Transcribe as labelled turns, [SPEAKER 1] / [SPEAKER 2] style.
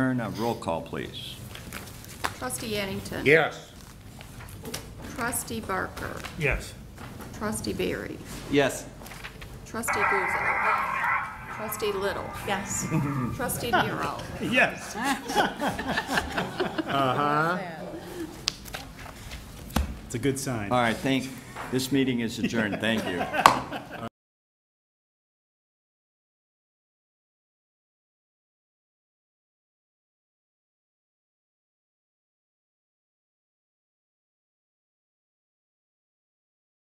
[SPEAKER 1] adjourn. Uh, Roll call, please.
[SPEAKER 2] Trustee Addington.
[SPEAKER 3] Yes.
[SPEAKER 2] Trustee Barker.
[SPEAKER 3] Yes.
[SPEAKER 2] Trustee Barry.
[SPEAKER 4] Yes.
[SPEAKER 2] Trustee Guzzo. Trustee Little.
[SPEAKER 5] Yes.
[SPEAKER 2] Trustee Nero.
[SPEAKER 3] Yes.
[SPEAKER 6] It's a good sign.
[SPEAKER 1] All right, thank, this meeting is adjourned. Thank you.